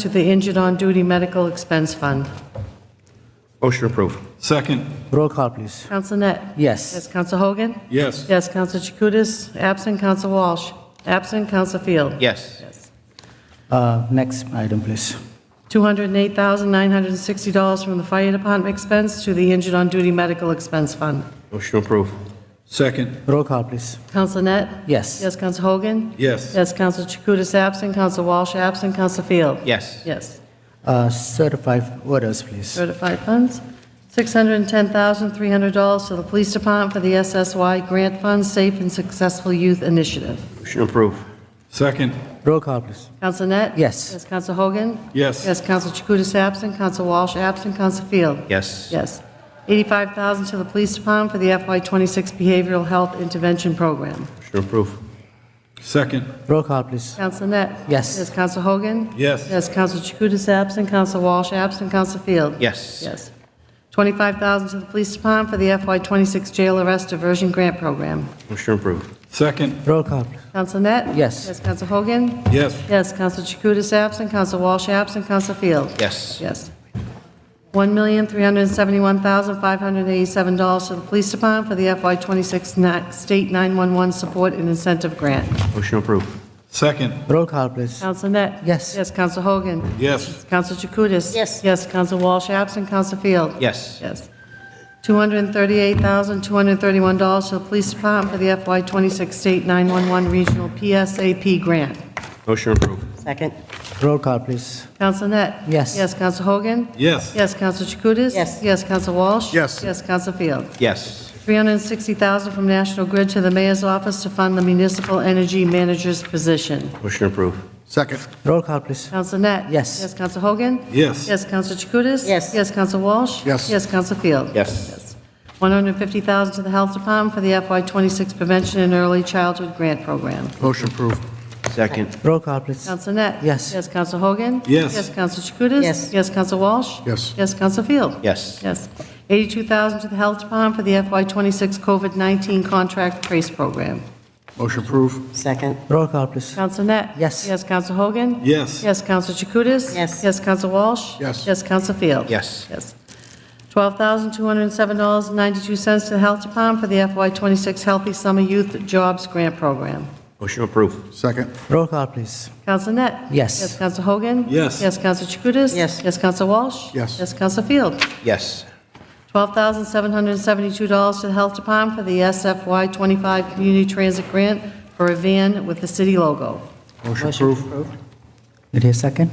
to the Injured on Duty Medical Expense Fund. Motion approved. Second, Roll call, please. Counsel Net? Yes, Yes. Counsel Hogan? yes. Yes, Counsel Chakutis? Absent, Counsel Walsh? Absent, Counsel Field? Yes. Uh, Next item, please. $208,960 from the Fire Department expense to the Injured on Duty Medical Expense Fund. Motion approved. Second, Roll call, please. Counsel Net? Yes. Yes, Counsel Hogan? yes. Yes, Counsel Chakutis? Absent, Counsel Walsh? Absent, Counsel Field? Yes. Yes. Uh, Certified orders, please. Certified funds, $610,300 to the Police Department for the SSY Grant Fund Safe and Successful Youth Initiative. Motion approved. Second, Roll call, please. Counsel Net? Yes. Yes, Counsel Hogan? yes. Yes, Counsel Chakutis absent, Counsel Walsh absent, Counsel Field? Yes. Yes. $85,000 to the Police Department for the FY26 Behavioral Health Intervention Program. Motion approved. Second, Roll call, please. Counsel Net? Yes. Yes, Counsel Hogan? yes. Yes, Counsel Chakutis absent, Counsel Walsh absent, Counsel Field? Yes. Yes. 25000 to the Police Department for the FY26 Jail Arrest Diversion Grant Program. Motion approved. Second, Roll call, please. Counsel Net? Yes. Yes, Counsel Hogan? yes. Yes, Counsel Chakutis absent, Counsel Walsh absent, Counsel Field? Yes. Yes. $1,371,587 to the Police Department for the FY26 na- State 911 Support and Incentive Grant. Motion approved. Second, Roll call, please. Counsel Net? Yes. Yes, Counsel Hogan? yes. Counsel Chakutis? Yes. Yes, Counsel Walsh absent, Counsel Field? Yes. Yes. $238,231 to the Police Department for the FY26 State 911 Regional PSAP Grant. Motion approved. Second, Roll call, please. Counsel Net? Yes. Yes, Counsel Hogan? Yes. Yes, Counsel Chakutis? Yes. Yes, Counsel Walsh? Yes. Yes, Counsel Field? Yes. 360000 from National Grid to the Mayor's Office to fund the Municipal Energy Manager's position. Motion approved. Second. Roll call, please. Counsel Net? Yes. Yes, Counsel Hogan? Yes. Yes, Counsel Chakutis? Yes. Yes, Counsel Walsh? Yes. Yes, Counsel Field? Yes. 150000 to the Health Department for the FY26 Prevention and Early Childhood Grant Program. Motion approved. Second. Roll call, please. Counsel Net? Yes. Yes, Counsel Hogan? Yes. Yes, Counsel Chakutis? Yes. Yes, Counsel Walsh? Yes. Yes, Counsel Field? Yes. Yes. 82000 to the Health Department for the FY26 COVID-19 Contract Trace Program. Motion approved. second, Roll call, please. Counsel Net? Yes. Yes, Counsel Hogan? Yes. Yes, Counsel Chakutis? Yes. Yes, Counsel Walsh? Yes. Yes, Counsel Field? Yes. Yes. $12,207.92 to the Health Department for the FY26 Healthy Summer Youth Jobs Grant Program. Motion approved. Second. Roll call, please. Counsel Net? Yes. Yes, Counsel Hogan? Yes. Yes, Counsel Chakutis? Yes. Yes, Counsel Walsh? Yes. Yes, Counsel Field? Yes. $12,772 to the Health Department for the SFY25 Community Transit Grant for a van with the city logo. Motion approved. Did you second?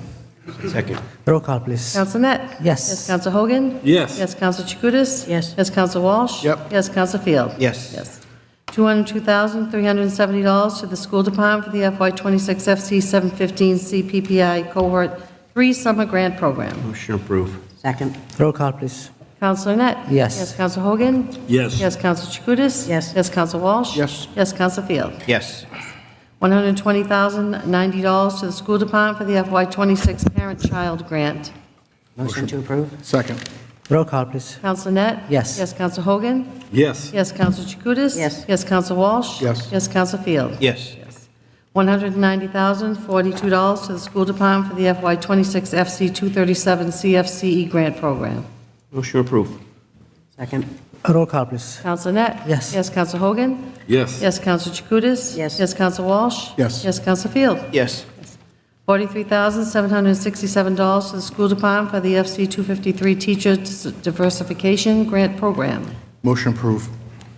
Second. Roll call, please. Counsel Net? Yes. Yes, Counsel Hogan? Yes. Yes, Counsel Chakutis? Yes. Yes, Counsel Walsh? Yep. Yes, Counsel Field? Yes. Yes. $202,370 to the School Department for the FY26 FC715 CPPI Cohort 3 Summer Grant Program. Motion approved. second, Roll call, please. Counselor Net? Yes. Yes, Counsel Hogan? Yes. Yes, Counsel Chakutis? Yes. Yes, Counsel Walsh? Yes. Yes, Counsel Field? Yes. $120,090 to the School Department for the FY26 Parent-Child Grant. motion to approve, Second. Roll call, please. Counselor Net? Yes. Yes, Counsel Hogan? Yes. Yes, Counsel Chakutis? Yes. Yes, Counsel Walsh? Yes. Yes, Counsel Field? Yes. $190,042 to the School Department for the FY26 FC237 CFCE E Grant Program. Motion approved. second, Roll call, please. Counsel Net? Yes. Yes, Counsel Hogan? Yes. Yes, Counsel Chakutis? Yes. Yes, Counsel Walsh? Yes. Yes, Counsel Field? Yes. $43,767 to the School Department for the FC253 Teacher Diversification Grant Program. Motion approved.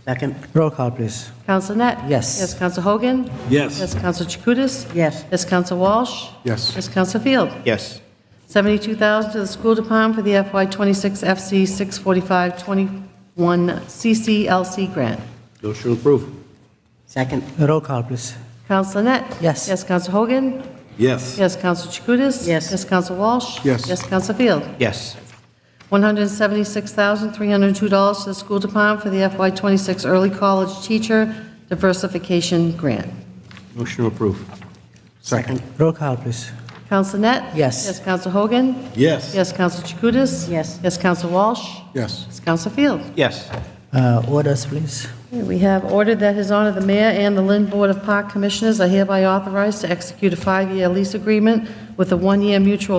second, Roll call, please. Counsel Net? Yes. Yes, Counsel Hogan? Yes. Yes, Counsel Chakutis? yes, Yes, Counsel Walsh? Yes. Yes, Counsel Field? Yes. 72000 to the School Department for the FY26 FC 64521 CCLC grant. Motion approved. second, Roll call, please. Counsel Net? Yes. Yes, Counsel Hogan? Yes. Yes, Counsel Chakutis? Yes. Yes, Counsel Walsh? Yes. Yes, Counsel Field? Yes. $176,302 to the School Department for the FY26 Early College Teacher Diversification Grant. Motion approved. second, Roll call, please. Counsel Net? Yes. Yes, Counsel Hogan? Yes. Yes, Counsel Chakutis? Yes. Yes, Counsel Walsh? Yes. Yes, Counsel Field? Yes. Uh, Orders, please. Okay, We have ordered that His Honor the Mayor and the Lynn Board of Park Commissioners are hereby authorized to execute a five-year lease agreement with a one-year mutual